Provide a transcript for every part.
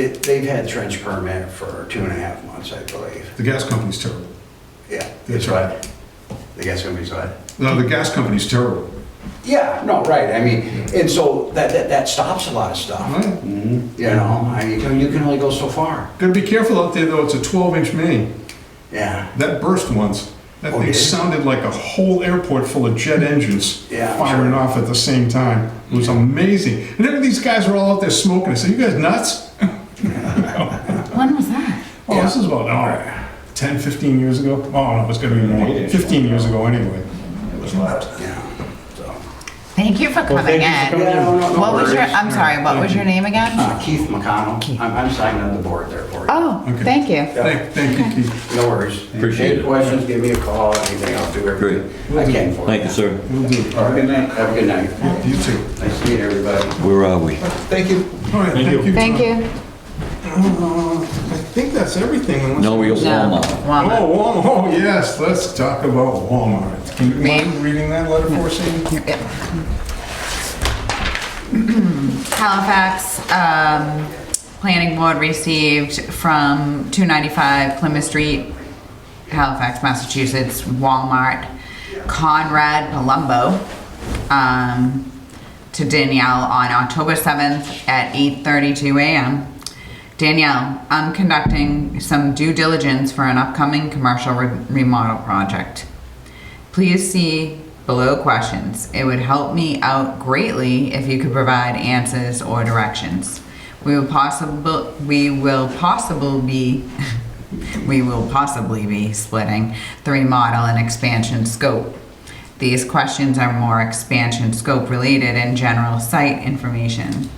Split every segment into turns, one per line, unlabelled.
It- They've had trench permit for two and a half months, I believe.
The gas company's terrible.
Yeah.
That's right.
The gas company's what?
No, the gas company's terrible.
Yeah, no, right, I mean, and so that, that, that stops a lot of stuff.
Right?
You know, I mean, you can only go so far.
Gotta be careful out there though, it's a twelve inch main.
Yeah,
That burst once. That
Oh,
thing
did it?
sounded like a whole airport full of jet engines
Yeah, I'm
firing
sure.
off at the same time. It was amazing. And then these guys were all out there smoking. I said, You guys nuts?
When was that?
Oh, this is about oh, 10, 15 years ago. Oh, no, it's gonna be more. 15 years ago anyway.
yeah, so.
Thank you for coming in.
Yeah, no, no, no
What was your,
worries.
I'm sorry, what was your name again?
Uh, Keith McConnell,
Keith.
I'm, I'm signing on the board there for you.
Oh,
Okay.
thank you.
Yeah.
Thank, thank you, Keith.
No worries.
Appreciate
Any
it.
questions, give me a call, anything, I'll do everything I can for you.
Thank you, sir.
We'll do it.
Have a good night. Have a good night.
You too.
Nice to meet everybody.
Where are we?
Thank you.
All right, thank you.
Thank you.
Uh, I think that's everything. unless-
No, we
No,
Walmart.
Oh,
Walmart.
Walmart. Oh, yes, let's talk about Walmart. Can you mind reading that letter for us, Amy?
Yep. Halifax, um, planning board received from 295 Plymouth Street, Halifax, Massachusetts, Walmart, Conrad Palumbo, um, to Danielle on October 7th at 8:32 a.m. Danielle, I'm conducting some due diligence for an upcoming commercial re- remodel project. Please see below questions. It would help me out greatly if you could provide answers or directions. We will possible we will possible be we will possibly be splitting the remodel and expansion scope. These questions are more expansion scope related and general site information.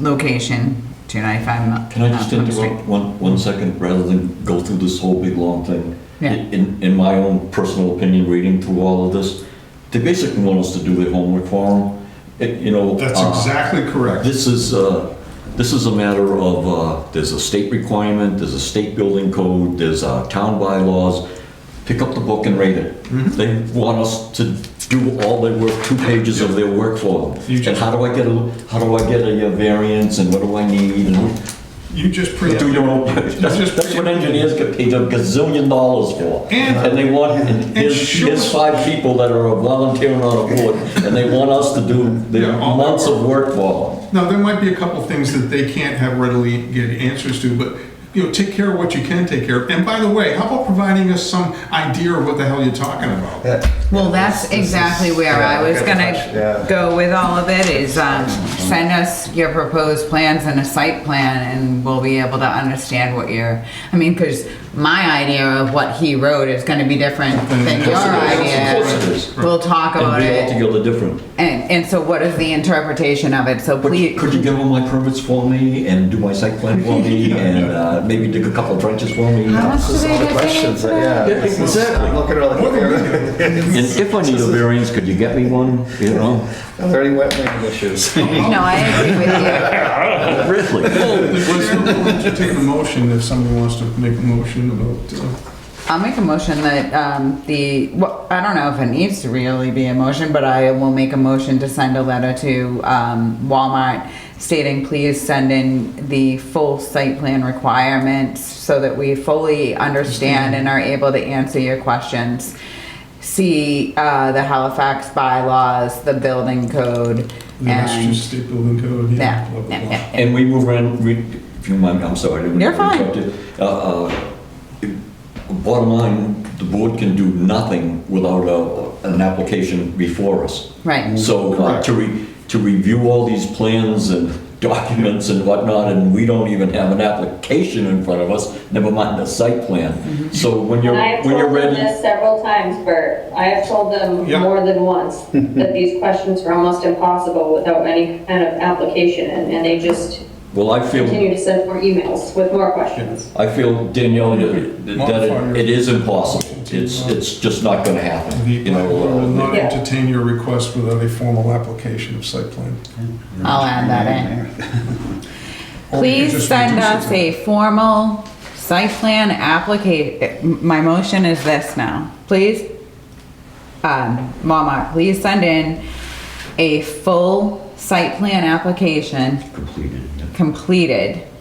Location, 295 Mel-
Can I just
Malcolm Street.
interrupt one, one second, rather than go through this whole big long thing?
Yeah.
In, in my own personal opinion, reading through all of this, they basically want us to do their homework for them, you know.
That's
uh,
exactly correct.
This is, uh, this is a matter of, uh, there's a state requirement, there's a state building code, there's uh, town bylaws. Pick up the book and read it.
Mm-hmm.
They want us to do all their work, two pages of their work for them.
You just-
And how do I get a, how do I get a uh, variance and what do I need and
You just pre.
do your own.
You
That's
just
that's what
pre-
engineers get paid a gazillion dollars for.
And-
And they want, and here's,
sure-
here's five people that are volunteering on a board and they want us to do their
Yeah, all that
months of work for them.
Now, there might be a couple things that they can't have readily get answers to, but, you know, take care of what you can take care of. And by the way, how about providing us some idea of what the hell you're talking
Uh,
about?
Well, that's exactly where I was gonna go with all of it, is, um, send us your proposed plans and a site plan, and we'll be able to understand what your, I mean, cause my idea of what he wrote is gonna be different than your
Of course it is.
idea. We'll talk about
And be
it,
altogether different.
and, and so what is the interpretation of it, so
But
please.
could you give them my permits for me and do my site plan for me and uh, maybe dig a couple trenches for me?
How much do
Those
they
are the
get paid
questions,
for that?
that- yeah. this is-
exactly.
I'm Looking around
What
like,
are we
there
doing?
And if I need a variance, could you get me one, you know?
are any wetland issues?
No, I agree with you.
Really?
The chair will entertain a motion if somebody wants to make a motion about, uh,
I'll make a motion that, um, the, well, I don't know if it needs to really be a motion, but I will make a motion to send a letter to, um, Walmart stating, please send in the full site plan requirements so that we fully understand and are able to answer your questions. See, uh, the Halifax bylaws, the building code,
the Massachusetts
and,
State Building Code.
yeah,
blah, blah,
yeah,
blah.
yeah.
And we move around, we- if you mind, I'm sorry. I didn't mean to
You're fine.
interrupt you. Uh, uh, Bottom line, the board can do nothing without a- an application before us.
Right.
So uh, to re, to review all these plans and documents and whatnot, and we don't even have an application in front of us, never mind a site plan. So when you're,
I have
when you're
told them
ready.
this several times, Bert. I have told them
Yeah.
more than once that these questions are almost impossible without any kind of application, and and they just
Well, I feel,
continue to send more emails with more questions.
I feel Danielle, that that it- it is impossible. It's, it's just not gonna happen,
The
you
planning board will
know. uh,
not
Yeah.
entertain your request without a formal application of site plan.
I'll add that in.
Or we could
Please
just
send
reduce it
us
to-
a formal site plan applica, my motion is this now, please. Um, Walmart, please send in a full site plan application
Completed.
completed